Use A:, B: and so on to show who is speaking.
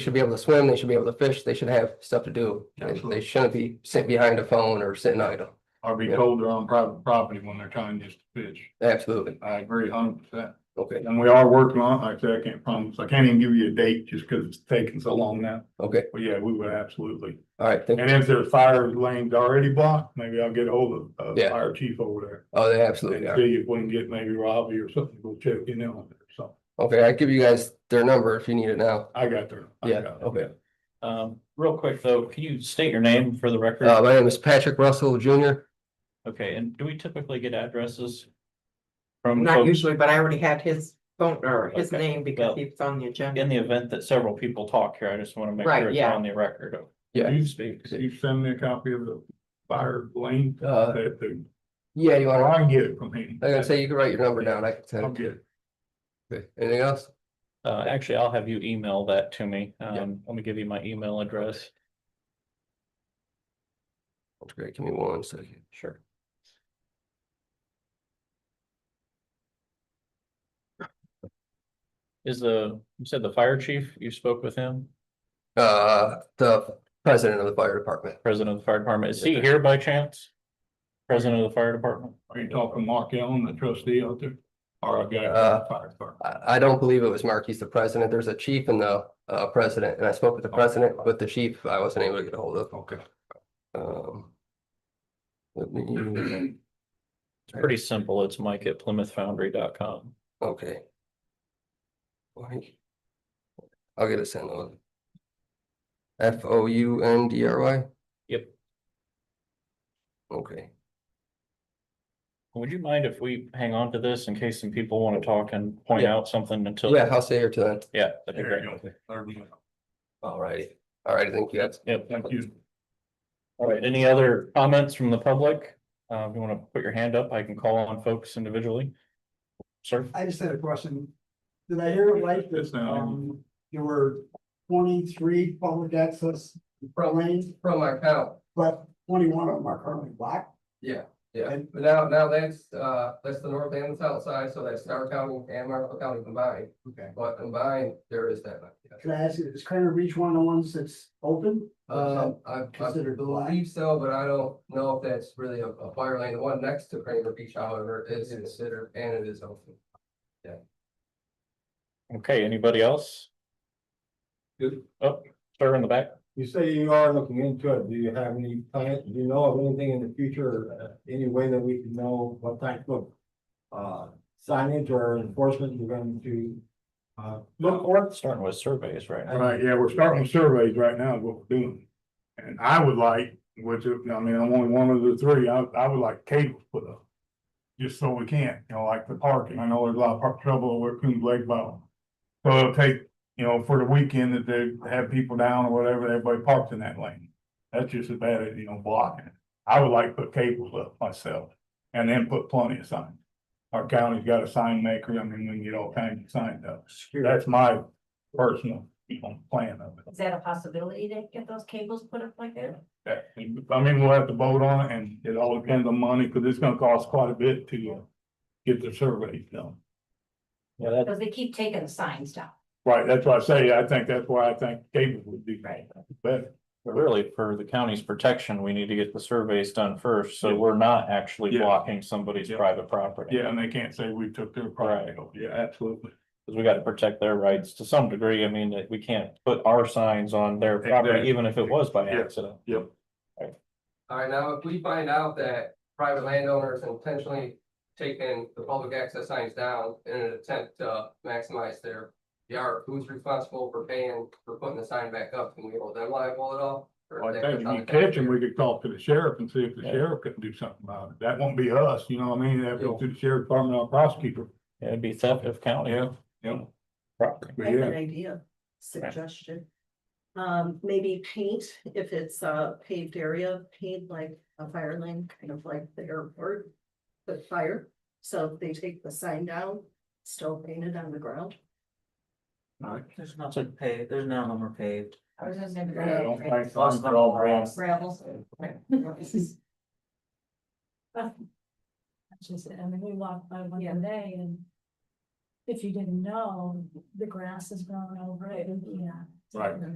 A: should be able to swim, they should be able to fish, they should have stuff to do. And They
B: Absolutely.
A: shouldn't be sitting behind a phone or sitting idle.
B: or be
A: Yeah.
B: told they're on private property when they're trying just to fish.
A: Absolutely.
B: I agree hundred percent.
A: Okay,
B: And we are working on, it. like I said, I can't promise, I can't even give you a date just because it's taking so long now.
A: okay,
B: But yeah, we would absolutely.
A: all right. thank-
B: And if there's fire lanes already blocked, maybe I'll get hold of, uh
A: Yeah.
B: fire chief over there.
A: Oh, they
B: And
A: absolutely are.
B: see if we can get maybe Robbie or something, go check in on it, so.
A: Okay, I give you guys their number if you need it now.
B: I got there. I
A: Yeah,
B: got it.
A: okay.
C: Um, real quick though, can you state your name for the
A: Uh,
C: record?
A: my name is Patrick Russell Junior.
C: Okay, and do we typically get addresses? From
D: Not
C: folks,
D: usually, but I already had his phone or his
C: Okay,
D: name
C: well,
D: because he was on the agenda.
C: in the event that several people talk here, I just want to make
D: Right,
C: sure it's
D: yeah.
C: on the record.
A: Yeah.
B: You speak, you send me a copy of the fire lane
A: Uh,
B: that, the-
A: yeah, you
B: or
A: wanna,
B: I can get it from him.
A: I gotta say, you can write your number down. I can
B: I'll
A: send
B: get
A: it.
B: it.
A: Okay, Anything else?
C: Uh, actually, I'll have you email that to me.
A: Yeah.
C: Um, let me give you my email address.
A: That's great. Give me one second.
C: Sure. Is the, you said the fire chief, you spoke with him,
A: Uh, the president of the fire department.
C: president of the fire department. Is he
A: Yeah.
C: here by chance? President of the fire department?
B: Are you talking Mark Allen, the trustee out there? Or a guy
A: Uh,
B: from the fire department?
A: I, I don't believe it was Mark. He's the president. There's a chief and the, uh, president. And I spoke with the president, but the chief, I wasn't able to get a hold of.
B: Okay.
A: Um. Let me,
C: It's pretty simple. It's mike at plymouthfoundry.com.
A: okay. Why- I'll get it sent on. F O U N D R Y?
C: Yep.
A: Okay,
C: Would you mind if we hang on to this in case some people want to talk and point
A: Yeah.
C: out something until?
A: yeah, I'll stay here till then.
C: Yeah, that'd be
B: There
C: great.
B: you go. There we go.
A: Alrighty, alrighty, thank you guys.
C: Yep.
B: Thank you.
C: All right. Any other comments from the public? Uh, if you want to put your hand up, I can call on folks individually. Sir,
E: I just had a question. Did I hear it right
B: Yes,
E: that,
B: ma'am.
E: um, there were twenty-three public access lanes,
A: From our town,
E: but twenty-one of them are currently blocked?
A: yeah, yeah,
E: And-
A: but now, now that's, uh, that's the north and the south side, so that's Stark County and Marfa County combined,
E: Okay.
A: but combined, there is that. yeah.
E: Can I ask you, is Cranor Beach one of the ones that's open?
F: Uh,
A: Um, I, I
E: considered black?
A: believe so, but I don't know if that's really a, a fire lane. The one next to Cramer Beach, however, is considered and it is open.
C: okay, anybody else?
B: Good.
C: Up, sir in the back.
F: You say you are looking into it. Do you have any plan, do you know of anything in the future, uh, any way that we can know what type of uh, signage or enforcement you're going to uh, look for?
C: Starting with surveys right
B: All
C: now.
B: right, yeah, we're starting with surveys right now, is what we're doing. And I would like, which, I mean, I'm only one of the three, I, I would like cables put up. Just so we can, you know, like the parking, I know there's a lot of park trouble over at Coons Lake Bottom. So it'll take, you know, for the weekend that they have people down or whatever, everybody parks in that lane. That's just as bad as, you know, blocking it. I would like to put cables up myself and then put plenty of signs. Our county's got a sign maker, I mean, we can get all kinds of signs up. That's my personal, you know, plan of it.
G: Is that a possibility to get those cables put up like that?
B: That, I mean, we'll have to vote on it and it all depends on money, cause it's gonna cost quite a bit to uh, get the surveys done.
C: Yeah, that,
G: Because they keep taking the signs down.
B: Right, that's why I say, I think that's why I think cable would do
G: Right.
B: better.
C: really for the county's protection, we need to get the surveys done first, so
B: Yeah.
C: we're not actually
B: Yeah.
C: blocking somebody's
B: Yeah.
C: private property.
B: Yeah, and they can't say we took their property. over. Yeah, absolutely.
C: Cause we gotta protect their rights to some degree. I mean, that we can't put our signs on their property,
B: Exactly.
C: even if it was by
B: Yeah.
C: accident.
A: Alright, now if we find out that private landowners intentionally taking the public access signs down in an attempt to maximize their yard, who's responsible for paying, for putting the sign back up? Can we hold them liable at all? Or
B: Well,
A: is
B: I
A: that
B: think
A: just
B: if you
A: on the
B: catch them,
A: taxpayer?
B: we could talk to the sheriff and see if the
C: Yeah.
B: sheriff can do something about it. That won't be us, you know what I mean? That'd be to the sheriff department or prosecutor.
C: Yeah, It'd be theft of county.
B: Yeah, yeah.
C: property.
B: But
H: I have
B: yeah,
H: an idea, suggestion. Um, maybe paint, if it's a paved area, paint like a fire lane, kind of like the airport. But fire, so if they take the sign down, still paint it on the ground.
I: There's nothing paved, there's none of them are paved.
G: I was just gonna
B: Yeah, I don't
G: go.
B: think. signs are all wrong.
H: Gravel.
G: She said, I mean, we walked by one the other day and if you didn't know, the grass is growing over it, yeah.
B: Right.